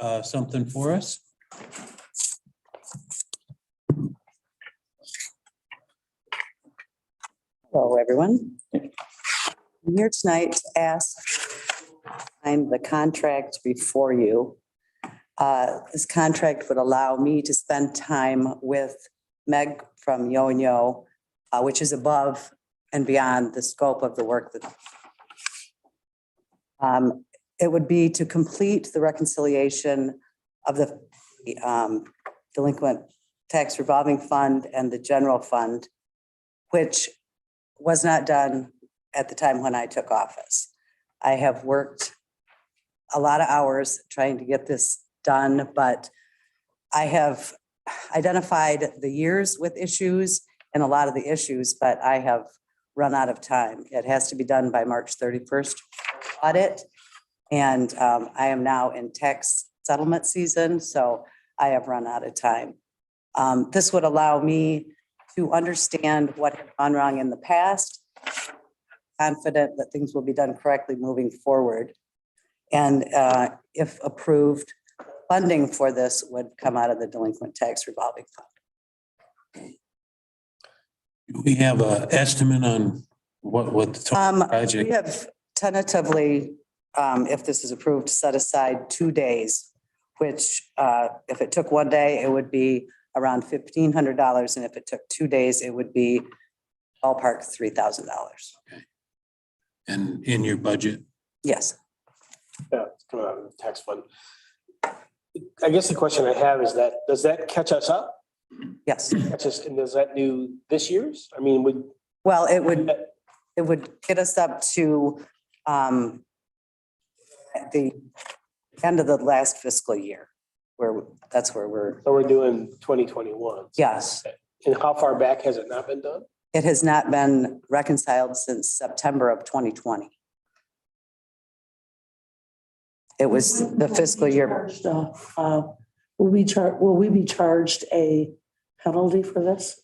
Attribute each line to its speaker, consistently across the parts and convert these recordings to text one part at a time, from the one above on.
Speaker 1: uh, something for us?
Speaker 2: Hello, everyone. I'm here tonight to ask, I'm the contract before you. Uh, This contract would allow me to spend time with Meg from Yo-Yo, uh, which is above and beyond the scope of the work that Um, it would be to complete the reconciliation of the um, delinquent tax revolving fund and the general fund, which was not done at the time when I took office. I have worked a lot of hours trying to get this done, but I have identified the years with issues and a lot of the issues, but I have run out of time. It has to be done by March thirty-first audit. And um, I am now in tax settlement season, so I have run out of time. Um, This would allow me to understand what had gone wrong in the past, confident that things will be done correctly moving forward. And uh, if approved, funding for this would come out of the delinquent tax revolving fund.
Speaker 1: Do We have a estimate on what, what the total
Speaker 2: Um, We
Speaker 1: project,
Speaker 2: have tentatively, um, if this is approved, set aside two days, which, uh, if it took one day, it would be around fifteen hundred dollars, and if it took two days, it would be ballpark three thousand dollars.
Speaker 1: and in your budget,
Speaker 2: Yes,
Speaker 3: Yeah, it's coming out of the tax fund. I guess the question I have is that, does that catch us up?
Speaker 2: yes.
Speaker 3: Catch us, and does that do this year's? I mean, would,
Speaker 2: Well, it would, it would get us up to, um, at the end of the last fiscal year, where, that's where we're,
Speaker 3: so we're doing twenty twenty-one.
Speaker 2: yes.
Speaker 3: And how far back has it not been done?
Speaker 2: It has not been reconciled since September of 2020. It was the fiscal year,
Speaker 4: Charged, uh, uh, Will we char, will we be charged a penalty for this?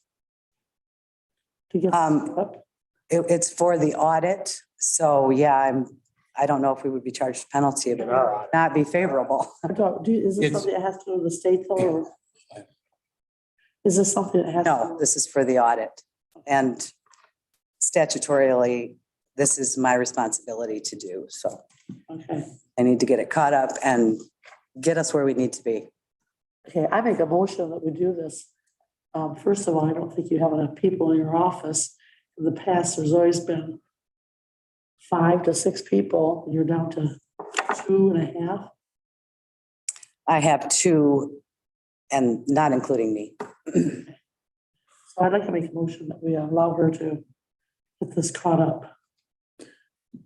Speaker 4: To get
Speaker 2: Um,
Speaker 4: this up?
Speaker 2: it- it's for the audit. So yeah, I'm, I don't know if we would be charged penalty. It
Speaker 3: In
Speaker 2: would
Speaker 3: our audit?
Speaker 2: not be favorable.
Speaker 4: I don't, do, is this
Speaker 1: It's-
Speaker 4: something that has to go to the state though? or- Is this something that has? to
Speaker 2: No,
Speaker 4: go-
Speaker 2: this is for the audit. And statutorily, this is my responsibility to do. So
Speaker 4: Okay,
Speaker 2: I need to get it caught up and get us where we need to be.
Speaker 4: okay, I make a motion that we do this. Um, first of all, I don't think you have enough people in your office. In the past, there's always been five to six people, and you're down to two and a half.
Speaker 2: I have two and not including me.
Speaker 4: So I'd like to make a motion that we allow her to get this caught up.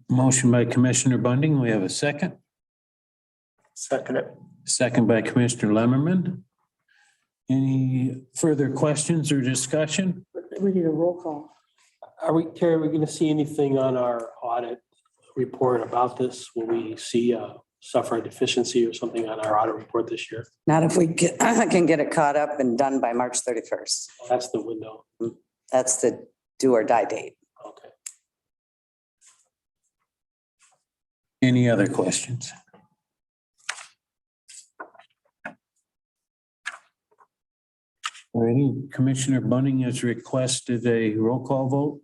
Speaker 1: motion by Commissioner Bunting, we have a second,
Speaker 3: Second it.
Speaker 1: second by Commissioner Lemmerman. Any further questions or discussion?
Speaker 4: We need a roll call.
Speaker 3: Are we, Terry, are we gonna see anything on our audit report about this? Will we see, uh, suffer a deficiency or something on our audit report this year?
Speaker 2: Not if we get- can get it caught up and done by March 31st.
Speaker 3: That's the window.
Speaker 2: That's the do or die date.
Speaker 3: Okay.
Speaker 1: Any other questions? Alrighty, Commissioner Bunting has requested a roll call vote.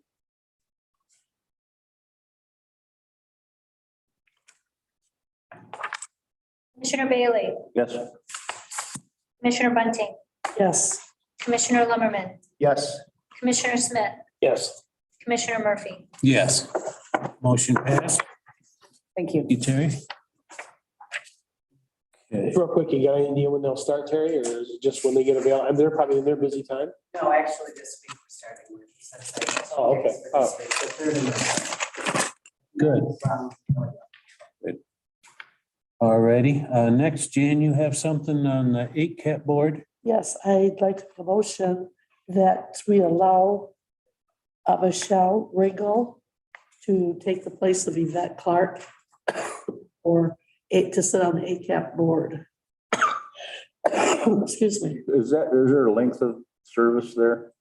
Speaker 5: Commissioner Bailey,
Speaker 3: Yes.
Speaker 5: Commissioner Bunting,
Speaker 4: Yes,
Speaker 5: Commissioner Lumberman,
Speaker 3: Yes.
Speaker 5: Commissioner Smith,
Speaker 3: Yes.
Speaker 5: Commissioner Murphy.
Speaker 1: Yes. Motion passed.
Speaker 2: Thank you.
Speaker 1: You, Terry? Okay.
Speaker 3: Real quick, you got any idea when they'll start, Terry, or is it just when they get available? And they're probably in their busy time?
Speaker 2: No, actually, this week we're starting with. this.
Speaker 3: Oh, okay. Oh.
Speaker 2: The third and um, the-
Speaker 1: Good. Alrighty, uh, next, Jan, you have something on the eight cap board?
Speaker 4: yes, I'd like to motion that we allow uh, Michelle Ringel to take the place of Yvette Clark or eight, to sit on the ACAP board. Excuse me.
Speaker 6: Is that, is there a length of service there?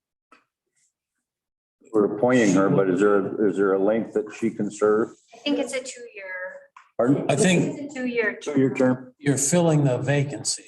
Speaker 6: We're appointing her, but is there, is there a length that she can serve?
Speaker 5: I think it's a two-year
Speaker 6: Pardon?
Speaker 1: I think
Speaker 5: It's a two-year
Speaker 6: Two-year term.
Speaker 1: you're filling the vacancy.